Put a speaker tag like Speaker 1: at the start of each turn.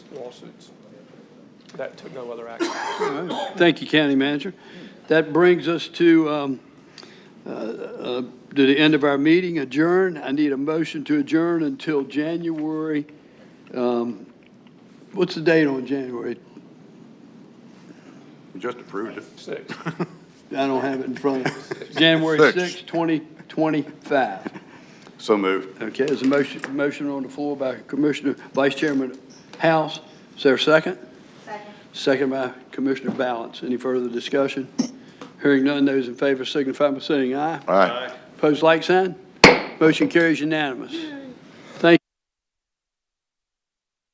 Speaker 1: lawsuits. That took no other action.
Speaker 2: Thank you, County Manager. That brings us to, um, uh, uh, to the end of our meeting, adjourn. I need a motion to adjourn until January, um, what's the date on January?
Speaker 3: You just approved it.
Speaker 1: Six.
Speaker 2: I don't have it in front of me. January
Speaker 3: Six.
Speaker 2: 6, 2025.
Speaker 3: So moved.
Speaker 2: Okay, there's a motion, motion on the floor by Commissioner, Vice Chairman House. Is there a second?
Speaker 4: Second.
Speaker 2: Second by Commissioner Balance. Any further discussion? Hearing none, those in favor signify by saying aye.
Speaker 3: All right.
Speaker 2: Pose like sign. Motion carries unanimous.